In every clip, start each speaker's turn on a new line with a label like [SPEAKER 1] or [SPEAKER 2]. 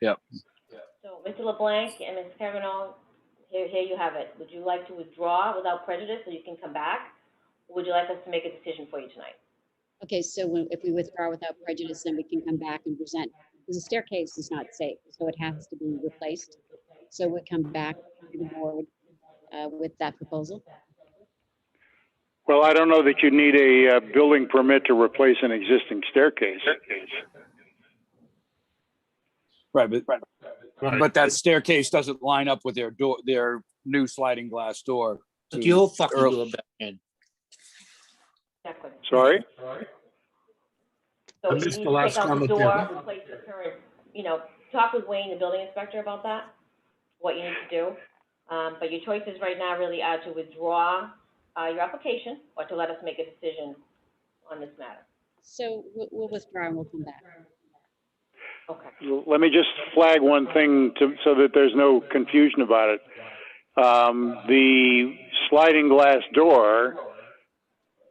[SPEAKER 1] Yep.
[SPEAKER 2] So, Mr. LeBlanc and Ms. Kavanaugh, here, here you have it. Would you like to withdraw without prejudice so you can come back? Or Would you like us to make a decision for you tonight?
[SPEAKER 3] Okay, so when- if we withdraw without prejudice, then we can come back and present, because the staircase is not safe, so it has to be replaced. So we come back to the board uh, with that proposal.
[SPEAKER 4] Well, I don't know that you need a uh, building permit to replace an existing staircase.
[SPEAKER 1] Right, but, but that staircase doesn't line up with their door, their new sliding glass door.
[SPEAKER 5] But
[SPEAKER 1] to-
[SPEAKER 5] you'll fucking
[SPEAKER 1] Earl-
[SPEAKER 5] do it back in.
[SPEAKER 2] Exactly.
[SPEAKER 4] Sorry?
[SPEAKER 2] So
[SPEAKER 6] I
[SPEAKER 2] if you
[SPEAKER 6] missed
[SPEAKER 2] need
[SPEAKER 6] the
[SPEAKER 2] to
[SPEAKER 6] last
[SPEAKER 2] take out the
[SPEAKER 6] comment
[SPEAKER 2] door,
[SPEAKER 6] there.
[SPEAKER 2] replace the current, you know, talk with Wayne, the building inspector, about that, what you need to do. Um, but your choices right now really are to withdraw, uh, your application or to let us make a decision on this matter.
[SPEAKER 3] So we'll- we'll withdraw and we'll come back.
[SPEAKER 2] Okay.
[SPEAKER 4] L- Let me just flag one thing to, so that there's no confusion about it. Um, the sliding glass door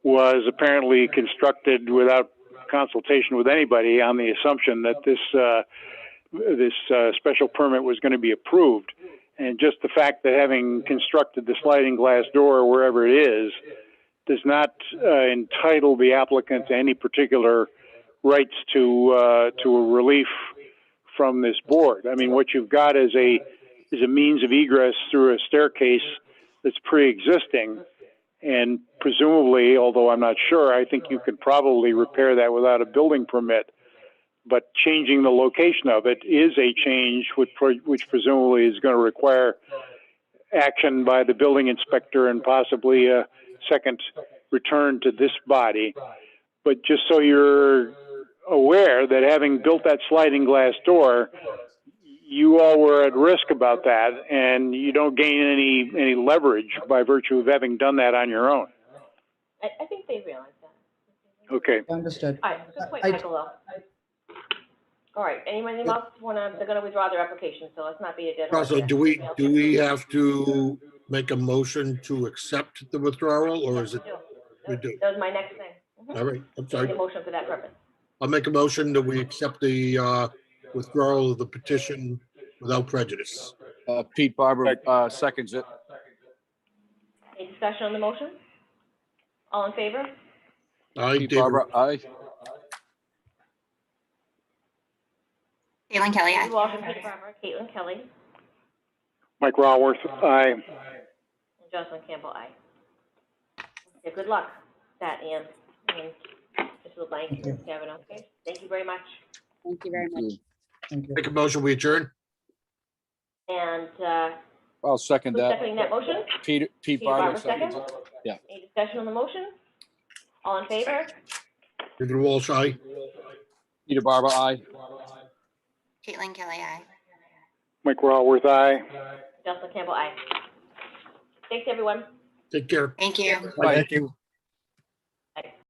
[SPEAKER 4] was apparently constructed without consultation with anybody on the assumption that this, uh, this, uh, special permit was gonna be approved. And just the fact that having constructed the sliding glass door wherever it is does not, uh, entitle the applicant to any particular rights to, uh, to a relief from this board. I mean, what you've got is a, is a means of egress through a staircase that's pre-existing. And presumably, although I'm not sure, I think you could probably repair that without a building permit. But changing the location of it is a change which, pre- which presumably is going to require action by the building inspector and possibly a second return to this body. But just so you're aware that having built that sliding glass door, you all were at risk about that, and you don't gain any, any leverage by virtue of having done that on your own.
[SPEAKER 2] I, I think they realize that.
[SPEAKER 4] Okay.
[SPEAKER 7] Understood.
[SPEAKER 2] All right, good point,
[SPEAKER 7] I-
[SPEAKER 2] Michael, though. All right, anyone else wanna, they're gonna withdraw their application, so let's not be a dead horse.
[SPEAKER 6] Also,
[SPEAKER 2] here.
[SPEAKER 6] do we, do we have to make a motion to accept the withdrawal or is it, we do?
[SPEAKER 2] That was my next thing. Mhm.
[SPEAKER 6] all right, I'm
[SPEAKER 2] Need
[SPEAKER 6] sorry.
[SPEAKER 2] a motion for that purpose.
[SPEAKER 6] I'll make a motion that we accept the uh, withdrawal of the petition without prejudice.
[SPEAKER 1] Uh, Pete Barber, uh, seconds it.
[SPEAKER 2] Any discussion on the motion? All in favor?
[SPEAKER 6] I
[SPEAKER 1] Pete
[SPEAKER 6] did,
[SPEAKER 1] Barber, aye.
[SPEAKER 8] Caitlin Kelly,
[SPEAKER 2] Steve
[SPEAKER 8] aye.
[SPEAKER 2] Walsh and Pete Farmer, Caitlin Kelly,
[SPEAKER 4] Mike Raworth, aye.
[SPEAKER 2] and Jocelyn Campbell, aye. Okay, good luck, with that, Ann, and Mr. LeBlanc,
[SPEAKER 7] Thank you.
[SPEAKER 2] Mr. Kavanaugh, okay? Thank you very much.
[SPEAKER 3] Thank you very much.
[SPEAKER 7] Thank you.
[SPEAKER 6] make a motion, we adjourn?
[SPEAKER 2] And, uh,
[SPEAKER 1] I'll second
[SPEAKER 2] who's
[SPEAKER 1] that.
[SPEAKER 2] seconding that motion?
[SPEAKER 1] Pete, Pete
[SPEAKER 2] Pete Barber,
[SPEAKER 1] Barber, seconds it.
[SPEAKER 2] second? Any discussion on the motion? All in favor?
[SPEAKER 6] David Walsh, aye.
[SPEAKER 1] Peter Barber, aye.
[SPEAKER 8] Caitlin Kelly, aye.
[SPEAKER 4] Mike Raworth, aye.
[SPEAKER 2] Jocelyn Campbell, aye. Thanks, everyone.
[SPEAKER 6] Take care.
[SPEAKER 8] Thank you.
[SPEAKER 1] Aye.
[SPEAKER 6] you.